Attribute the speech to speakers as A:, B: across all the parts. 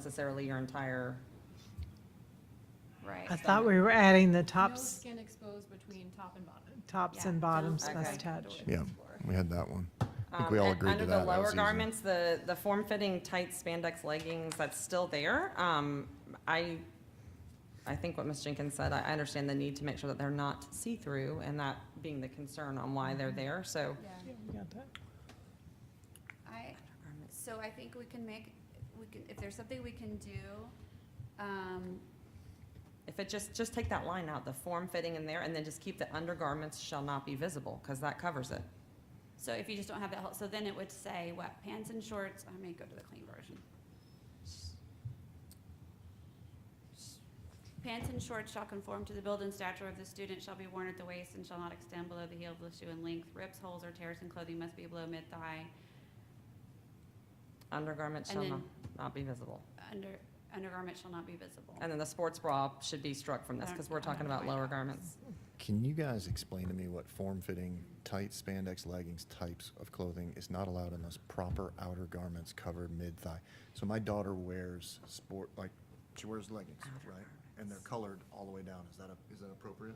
A: necessarily your entire,
B: Right.
C: I thought we were adding the tops,
D: No skin exposed between top and bottom.
C: tops
B: Yeah.
C: and bottoms
A: Okay.
C: must touch.
E: Yeah, we had that one. I think we
A: Um,
E: all
A: and
E: agreed to that.
A: Under the
E: That was
A: lower
E: easy.
A: garments, the, the form-fitting tight spandex leggings, that's still there. Um, I, I think what Ms. Jenkins said, I, I understand the need to make sure that they're not see-through and that being the concern on why
B: Mm-hmm.
A: they're there, so.
B: Yeah.
C: Yeah, we got that.
B: I, so I think we can make, we can, if there's something we can do, um,
A: If it just, just take that line out, the form-fitting in there, and then just keep the undergarments shall not be visible, because that covers it.
B: so if you just don't have that, whole- so then it would say what, pants and shorts, I may go to the clean version. Pants and shorts shall conform to the build and stature of the student, shall be worn at the waist and shall not extend below the heel of the shoe in length. Rips, holes, or tears in clothing must be below mid-thigh,
A: Undergarments
B: And
A: shall
B: then-
A: not, not be visible.
B: under, undergarment shall not be visible.
A: And then the sports bra should be struck from this, because we're talking about lower garments.
E: Can you guys explain to me what form-fitting, tight spandex leggings types of clothing is not allowed unless proper outer garments cover mid-thigh? So my daughter wears sport, like, she wears leggings, right? And they're colored all the way down. Is that, a- is that appropriate?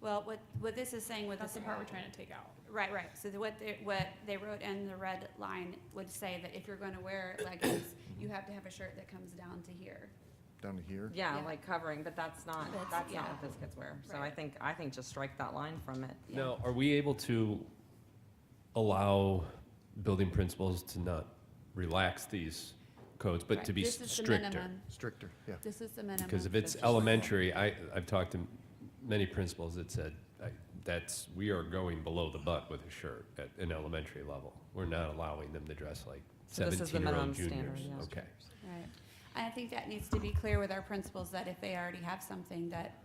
B: Well, what, what this is saying with
D: That's
B: this.
D: the part we're trying to take out.
B: Right, right. So the- what they, what they wrote in the red line would say that if you're gonna wear leggings, you have to have a shirt that comes down to here.
E: Down to here?
A: Yeah,
B: Yeah.
A: like covering, but that's not,
B: That's-
A: that's not
B: yeah.
A: what this kids wear. So I
B: Right.
A: think, I think just strike that line from it.
B: Yeah.
F: Now, are we able to allow building principals to not relax these codes, but to
B: Right.
F: be
B: This is the
F: stricter?
B: minimum.
E: Stricter, yeah.
B: This is the minimum.
F: Because if it's elementary, I, I've talked to many principals that said, I- that's, we are going below the butt with a shirt at an elementary level. We're not allowing them to dress like
A: So this is the
F: seventeen-year-old
A: minimum standard,
F: juniors.
A: yeah.
F: Okay.
B: Right. I think that needs to be clear with our principals that if they already have something that,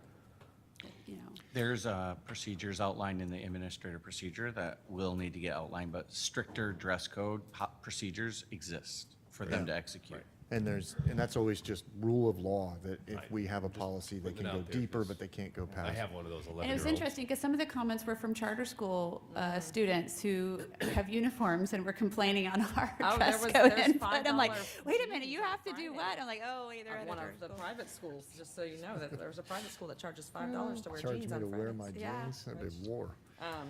B: that, you know,
G: There's uh, procedures outlined in the administrative procedure that will need to get outlined, but stricter dress code po- procedures exist for them to execute.
E: And there's, and that's always just rule of law, that if
F: Right.
E: we have a policy, they can
F: putting it
E: go
F: out there,
E: deeper,
F: 'cause
E: but they can't go
F: I
E: past.
F: have one of those eleven-year-olds.
B: And it was interesting because some of the comments were from charter school uh, students who have uniforms and were complaining on our
A: Oh, there
B: dress
A: was-
B: code
A: there's
B: input. I'm like,
A: $5
B: wait a minute, you
A: fees on
B: have to do
A: Friday
B: what? I'm like, oh, wait, they're
A: At
B: at a
A: one of
B: charter
A: the
B: school.
A: private schools, just so you know, that there's a private school that charges five dollars to wear
E: Charge
A: jeans
E: me to
A: on
E: wear my
A: Fridays.
B: Yeah.
E: jeans, that'd be war.
A: Um,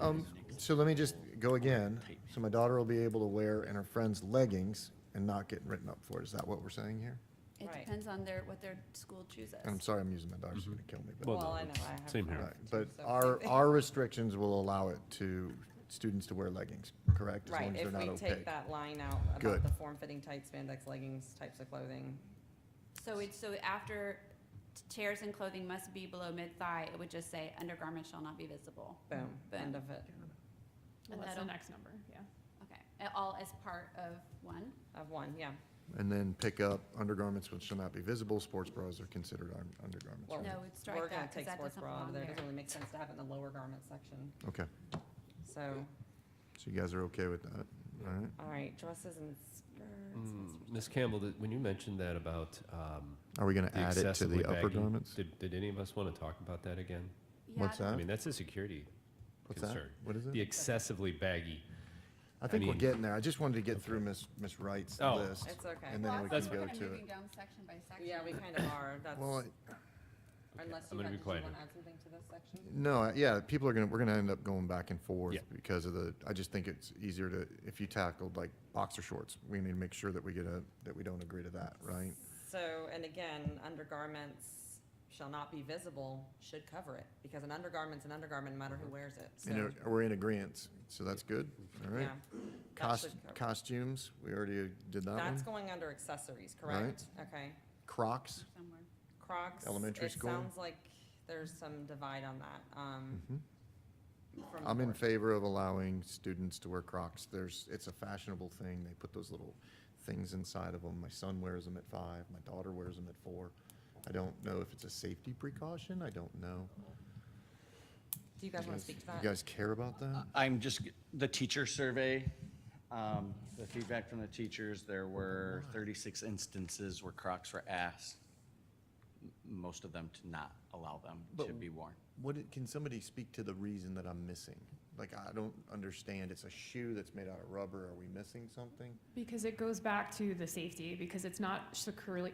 E: Um, so let me just go again. So my daughter will be able to wear in her friend's leggings and not get written up for it. Is that what we're saying here?
B: It
A: Right.
B: depends on their, what their school chooses.
E: And I'm sorry, I'm using my daughter, she's gonna kill me, but,
F: Well,
A: Well,
F: no,
A: I know, I have.
F: same here.
E: right. But our, our restrictions will allow it to, students to wear leggings, correct? As
A: Right,
E: long as
A: if
E: they're
A: we
E: not
A: take
E: opaque.
A: that line out about
E: Good.
A: the form-fitting tights, spandex leggings, types of clothing.
B: So it's, so after t- chairs and clothing must be below mid-thigh, it would just say undergarments shall not be visible.
A: Boom, end
B: Boom.
A: of it,
D: And that's the
B: That'll-
D: next number, yeah.
B: Okay, And all as part of one.
A: of one, yeah.
E: And then pick up undergarments which shall not be visible, sports bras are considered un- undergarments.
A: Well,
E: right?
B: No, we'd strike
A: Oh. We're
B: that
A: gonna
B: 'cause
A: take
B: that
A: sports
B: doesn't
A: bra out of
B: belong
A: there. It
B: there.
A: doesn't really make sense to have it in the lower garment section,
E: Okay,
A: so.
E: so you guys are okay with that, all right?
A: All right, dresses and skirts.
F: Mm, Ms. Campbell, did- when you mentioned that about, um,
E: Are we gonna
F: the
E: add it to
F: excessively
E: the upper
F: baggy,
E: garments?
F: Did, did any of us want to talk about that again?
B: Yeah,
E: What's
F: I
E: that?
F: mean, that's a security
E: What's that?
F: concern.
E: What is
F: The
E: it?
F: excessively baggy.
E: I think we're
F: mean-
E: getting there. I just wanted to get through Miss, Miss Wright's
F: Oh.
E: list.
A: It's okay.
E: And
B: Well,
E: then
B: I
E: we
B: think
E: can go
B: we're kinda
E: to it.
B: moving down section by section.
A: Yeah, we kind of are, that's,
E: Well,
A: unless you
F: I'm gonna
A: had,
F: be
A: did you
F: quiet
A: want
F: now.
A: to add something to this section?
E: No, I- yeah, people are gonna, we're gonna end up going back and forth
F: Yeah.
E: because of the, I just think it's easier to, if you tackled like boxer shorts, we need to make sure that we get a, that we don't agree to that, right?
A: So, and again, undergarments shall not be visible, should cover it, because an undergarment's an undergarment, no
F: Uh-huh.
A: matter who wears it, so,
E: And uh, we're in agreement, so that's good, all
A: yeah.
E: right?
A: that
E: Cost,
A: should cover it.
E: costumes, we already did that
A: That's
E: one.
A: going under accessories,
E: Right.
A: correct? Okay.
E: Crocs,
B: Somewhere.
A: Crocs.
E: Elementary school.
A: It sounds like there's some divide on that, um.
F: Mm-hmm.
A: from
E: Hmm. I'm in
A: board.
E: favor of allowing students to wear Crocs. There's, it's a fashionable thing. They put those little things inside of them. My son wears them at five, my daughter wears them at four. I don't know if it's a safety precaution, I don't know.
A: Do you guys want to speak to that? Uh,
E: You guys care about that?
G: I'm just, the teacher survey, um, the feedback from the teachers, there were 36 instances where Crocs were asked, m- most of them to not allow them to
E: But-
G: be worn.
E: What, it- can somebody speak to the reason that I'm missing? Like, I don't understand. It's a shoe that's made out of rubber. Are we missing something?
D: Because it goes back to the safety, because it's not securely,